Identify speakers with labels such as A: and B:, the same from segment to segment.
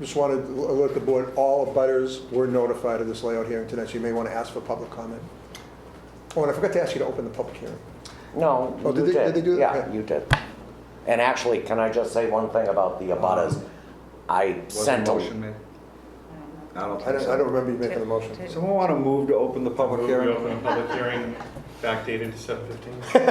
A: Just wanted to alert the board, all butters were notified of this layout hearing tonight, so you may want to ask for public comment. Oh, and I forgot to ask you to open the public hearing.
B: No,
A: Oh,
B: you
A: did they- did they do that?
B: Yeah,
A: Okay.
B: you did. And actually, can I just say one thing about the abutters? I
C: Was a
B: sent them.
C: motion made? I don't
A: I
C: think
A: don't, I don't
C: so.
A: remember you making the motion.
C: Someone want to move to open the public
D: Move to
C: hearing?
D: open a public hearing backdated to seven fifteen.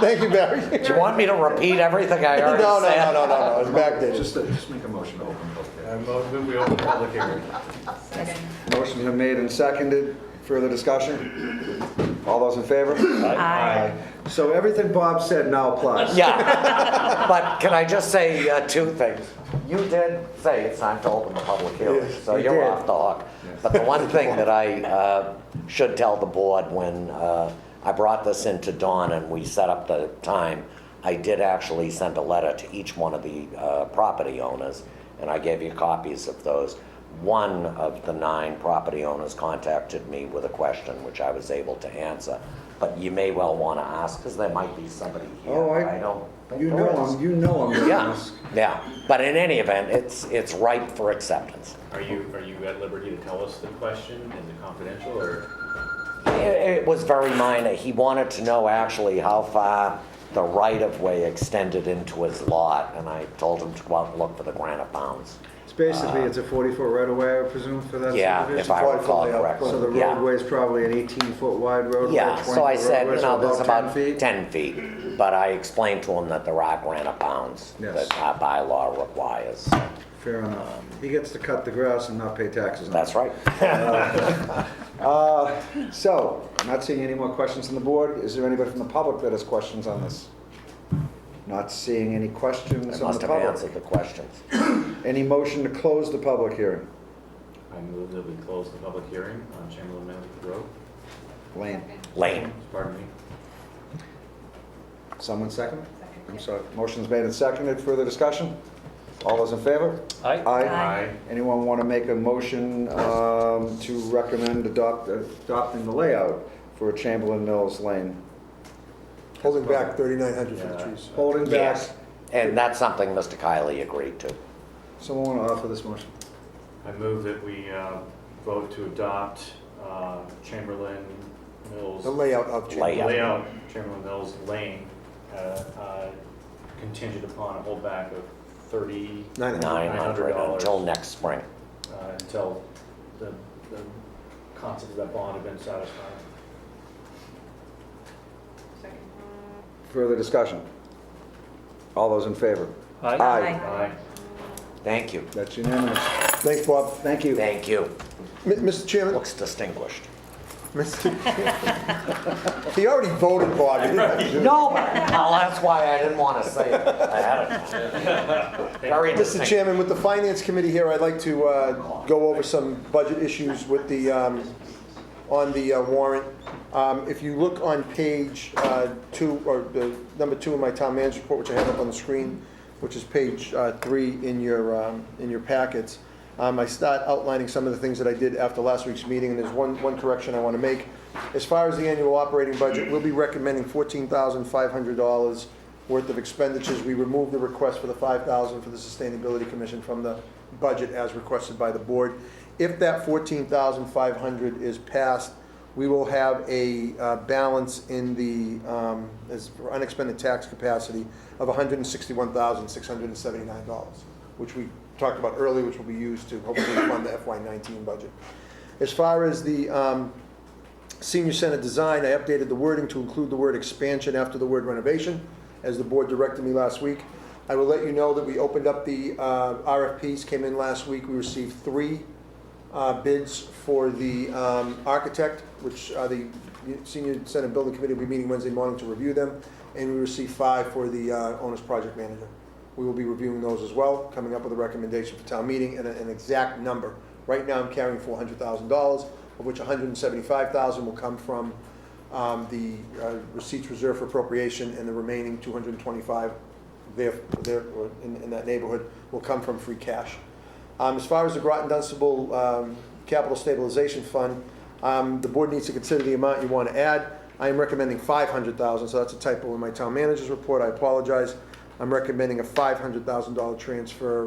A: Thank you, Barry.
B: Do you want me to repeat everything I
A: No,
B: already
A: no,
B: said?
A: no, no, no, no, it's back there.
C: Just, just make a motion to open the public hearing.
D: I mo- move we open the public hearing.
C: Motion's been made and seconded. Further discussion? All those in favor?
D: Aye.
C: So everything Bob said now applies.
B: Yeah, but can I just say uh, two things? You did say it's time to open the public hearing,
A: Yes,
B: so
C: you
B: you're
C: did.
B: off the hook. But the one thing that I uh, should tell the board when uh, I brought this into Dawn and we set up the time, I did actually send a letter to each one of the uh, property owners, and I gave you copies of those. One of the nine property owners contacted me with a question, which I was able to answer. But you may well want to ask, because there might be somebody here.
C: Oh,
B: I don't
C: I,
B: think
C: you
B: there
C: know
B: is.
C: I'm, you know I'm going to
B: Yeah,
C: ask.
B: yeah, but in any event, it's, it's ripe for acceptance.
D: Are you, are you at liberty to tell us the question? Is it confidential or?
B: It, it was very minor, he wanted to know actually how far the right-of-way extended into his lot, and I told him to go out and look for the granite bounds.
C: It's basically, it's a 40-foot right-of-way, I presume, for that
B: Yeah, if
C: subdivision?
B: I
A: quite
B: recall
A: fully up.
B: correctly,
C: So the
B: yeah.
C: roadway is probably an 18-foot wide roadway?
B: Yeah, so I
C: 20-foot
B: said,
C: roadway,
B: you
C: so
B: know, there's about
C: 10 feet?
B: 10 feet, but I explained to him that there are granite bounds
C: Yes.
B: that our bylaw requires.
C: Fair enough. He gets to cut the grass and not pay taxes on it.
B: That's right.
C: Uh, So, I'm not seeing any more questions on the board. Is there anybody from the public that has questions on this? Not seeing
B: I
C: any questions on
B: must
C: the
B: have
C: public.
B: answered the questions.
C: Any motion to close the public hearing?
D: I move that we close the public hearing on Chamberlain Mountain Road.
C: Lane,
B: Lane,
D: Pardon me.
C: someone second? I'm sorry. Motion's made and seconded. Further discussion? All those in favor?
D: Aye.
C: Anyone want to make a motion um, to recommend adopt, adopting the layout for Chamberlain Mills Lane?
A: Holding back 3,900 for the trees.
C: Holding back,
B: yes, and that's something Mr. Kiley agreed to.
C: someone want to offer this motion?
D: I move that we uh, vote to adopt uh, Chamberlain Mills.
A: The layout of trees.
B: Layout. Yeah.
D: layout Chamberlain Mills Lane uh, uh, contingent upon a holdback of thirty,
A: Nine hundred.
B: Nine hundred
D: $900.
B: until next spring.
D: uh, until the, the concept of that bond have been satisfied.
C: Further discussion? All those in favor?
E: Aye.
D: Aye.
B: Thank you,
C: That's unanimous.
A: Thanks, Bob.
C: Thank you.
B: thank you.
A: M- Mr. Chairman,
B: Looks distinguished.
A: Mr. He already voted, Bob. He didn't have to do it.
B: No, well, that's why I didn't want to say it ahead of time. Very
A: Mr.
B: distinguished.
A: Chairman, with the Finance Committee here, I'd like to uh, go over some budget issues with the, um, on the uh, warrant. Um, If you look on page uh, two, or the number two in my town manager's report, which I have up on the screen, which is page uh, three in your, um, in your packets, um, I start outlining some of the things that I did after last week's meeting, and there's one, one correction I want to make. As far as the annual operating budget, we'll be recommending $14,500 worth of expenditures. We removed the request for the 5,000 for the Sustainability Commission from the budget as requested by the board. If that 14,500 is passed, we will have a uh, balance in the, um, as for unexpended tax capacity of $161,679, which we talked about earlier, which will be used to hopefully fund the FY19 budget. As far as the um, senior center design, I updated the wording to include the word expansion after the word renovation, as the board directed me last week. I will let you know that we opened up the uh, RFPs, came in last week, we received three uh, bids for the um, architect, which uh, the senior center building committee will be meeting Wednesday morning to review them, and we received five for the uh, owner's project manager. We will be reviewing those as well, coming up with a recommendation for town meeting and a- an exact number. Right now, I'm carrying four hundred thousand dollars, of which $175,000 will come from um, the uh, receipts reserved for appropriation, and the remaining two hundred and twenty-five there, there, or in, in that neighborhood will come from free cash. Um, as far as the Groton Dunstable, um, capital stabilization fund, um, the board needs to consider the amount you want to add. I am recommending five hundred thousand, so that's a typo in my town manager's report, I apologize. I'm recommending a five hundred thousand dollar transfer